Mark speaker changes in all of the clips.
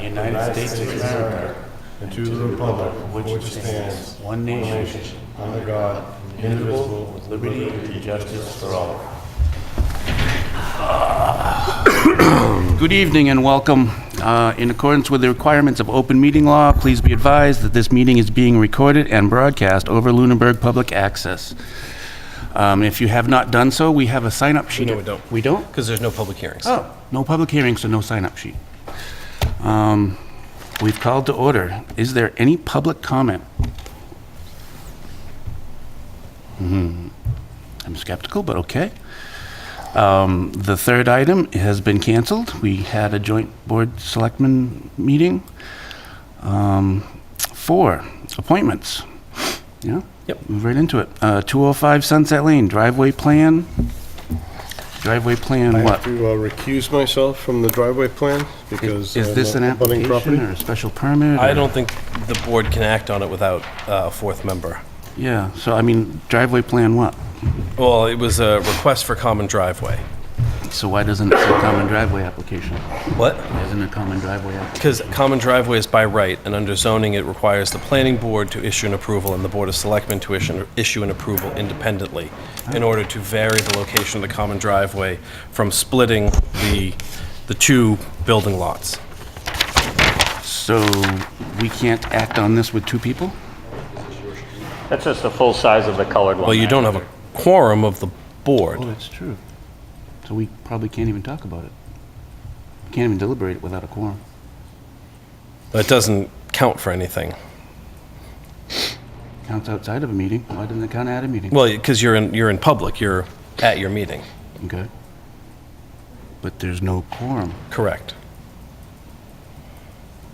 Speaker 1: United States of America,
Speaker 2: and to the republic for
Speaker 1: which
Speaker 2: which it stands,
Speaker 1: stands one
Speaker 2: one
Speaker 1: nation,
Speaker 2: nation, under God, indivisible, with liberty and justice for all.
Speaker 1: Good evening and welcome. Uh, In accordance with the requirements of open meeting law, please be advised that this meeting is being recorded and broadcast over Lunenburg Public Access. Um, If you have not done so, we have a sign-up sheet.
Speaker 3: No, we don't.
Speaker 1: We don't?
Speaker 3: Because there's no public hearings.
Speaker 1: Oh, no public hearing, so no sign-up sheet. Um, We've called to order. Is there any public comment? Hmm, I'm skeptical, but okay. Um, The third item has been canceled. We had a joint board selectmen meeting. Um, Four, appointments. Yeah?
Speaker 3: Yep.
Speaker 1: Move right into it. Uh, 205 Sunset Lane, driveway plan. Driveway
Speaker 2: I
Speaker 1: plan what?
Speaker 2: have to uh, recuse myself from the driveway plan because.
Speaker 1: Is is
Speaker 2: I'm
Speaker 1: this an
Speaker 2: not abutting
Speaker 1: application
Speaker 2: property.
Speaker 1: or a special permit?
Speaker 3: I
Speaker 1: or-
Speaker 3: don't think the board can act on it without uh, a fourth member.
Speaker 1: Yeah, so I mean, driveway plan what?
Speaker 3: Well, it was a request for common driveway.
Speaker 1: So why doesn't it say common driveway application?
Speaker 3: What?
Speaker 1: Why Isn't it common driveway application?
Speaker 3: Because common driveway is by right, and under zoning, it requires the planning board to issue an approval and the board of selectmen to issue, issue an approval independently in order to vary the location of the common driveway from splitting the, the two building lots.
Speaker 1: So we can't act on this with two people?
Speaker 4: That's just the full size of the colored one.
Speaker 3: Well, you
Speaker 4: right?
Speaker 3: don't have a quorum of the
Speaker 1: Oh,
Speaker 3: board.
Speaker 1: that's true. So we probably can't even talk about it. Can't even deliberate it without a quorum.
Speaker 3: It doesn't count for anything.
Speaker 1: Counts outside of a meeting. Why doesn't it count at a meeting?
Speaker 3: Well, because you're in, you're in public, you're at your meeting.
Speaker 1: Okay. But there's no quorum.
Speaker 3: Correct.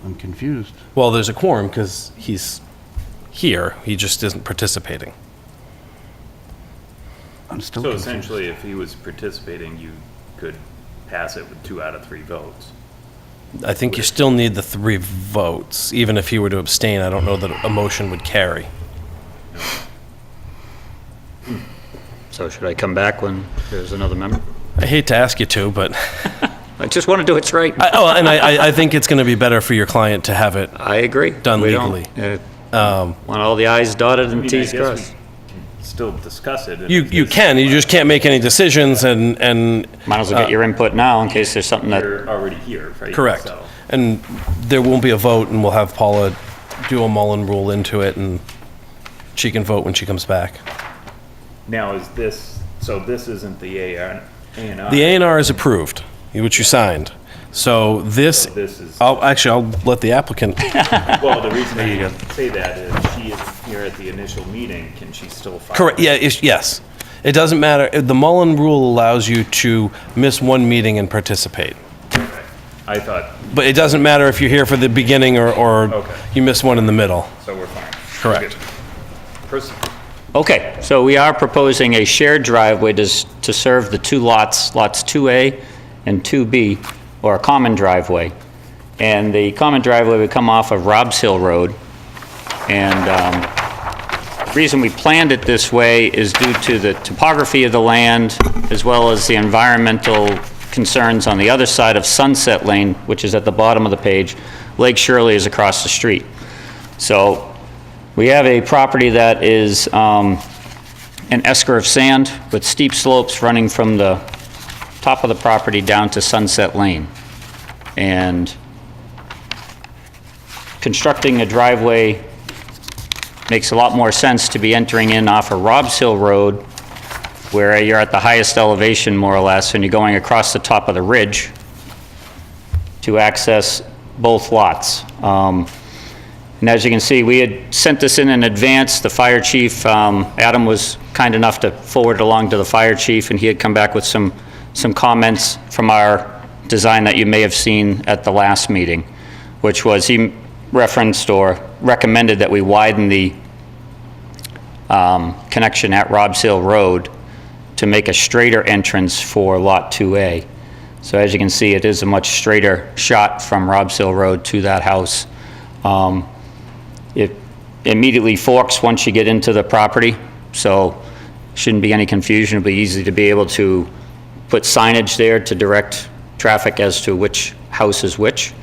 Speaker 1: I'm confused.
Speaker 3: Well, there's a quorum because he's here. He just isn't participating.
Speaker 1: I'm still
Speaker 5: So
Speaker 1: confused.
Speaker 5: essentially, if he was participating, you could pass it with two out of three votes.
Speaker 3: I think you still need the three votes. Even if he were to abstain, I don't know that a motion would carry.
Speaker 4: So should I come back when there's another member?
Speaker 3: I hate to ask you to, but
Speaker 4: I just want to do what's right.
Speaker 3: I, oh, and I, I- I think it's going to be better for your client to have it.
Speaker 4: I agree.
Speaker 3: Done
Speaker 4: We don't,
Speaker 3: legally. Um,
Speaker 4: uh, Want all the i's dotted
Speaker 5: I
Speaker 4: and
Speaker 5: mean, I
Speaker 4: t's
Speaker 5: guess we
Speaker 4: crossed.
Speaker 5: can Still discuss it. and
Speaker 3: You
Speaker 5: if
Speaker 3: you
Speaker 5: there's-
Speaker 3: can. You just can't make any decisions, and and
Speaker 4: Might as well get your input now in case there's something that,
Speaker 5: You're already here, right?
Speaker 3: correct.
Speaker 5: So-
Speaker 3: And there won't be a vote, and we'll have Paula do a Mullen rule into it, and she can vote when she comes back.
Speaker 5: Now, is this, so this isn't the A and A and R?
Speaker 3: The A and R is approved, which you signed. So this,
Speaker 5: So this is-
Speaker 3: I'll, actually, I'll let the applicant,
Speaker 5: Well, the reason I say that is she is here at the initial meeting, can she still file?
Speaker 3: correct, yeah, it's- yes. It doesn't matter, uh, the Mullen rule allows you to miss one meeting and participate.
Speaker 5: Okay. I thought,
Speaker 3: But it doesn't matter if you're here for the beginning or, or
Speaker 5: Okay.
Speaker 3: you miss one in the middle.
Speaker 5: so we're fine.
Speaker 3: Correct.
Speaker 5: Good. Proceed.
Speaker 4: okay, so we are proposing a shared driveway to, s- to serve the two lots, lots 2A and 2B, or a common driveway. And the common driveway would come off of Rob's Hill Road. And, um, The reason we planned it this way is due to the topography of the land, as well as the environmental concerns on the other side of Sunset Lane, which is at the bottom of the page. Lake Shirley is across the street. So we have a property that is um, an esker of sand with steep slopes running from the top of the property down to Sunset Lane. And constructing a driveway makes a lot more sense to be entering in off of Robs Hill Road, where you're at the highest elevation, more or less, and you're going across the top of the ridge to access both lots. Um, And as you can see, we had sent this in in advance. The fire chief, um, Adam was kind enough to forward it along to the fire chief, and he had come back with some, some comments from our design that you may have seen at the last meeting, which was he referenced or recommended that we widen the um, connection at Robs Hill Road to make a straighter entrance for Lot 2A. So as you can see, it is a much straighter shot from Robs Hill Road to that house. Um, It immediately forks once you get into the property, so shouldn't be any confusion. It'll be easy to be able to put signage there to direct traffic as to which house is which.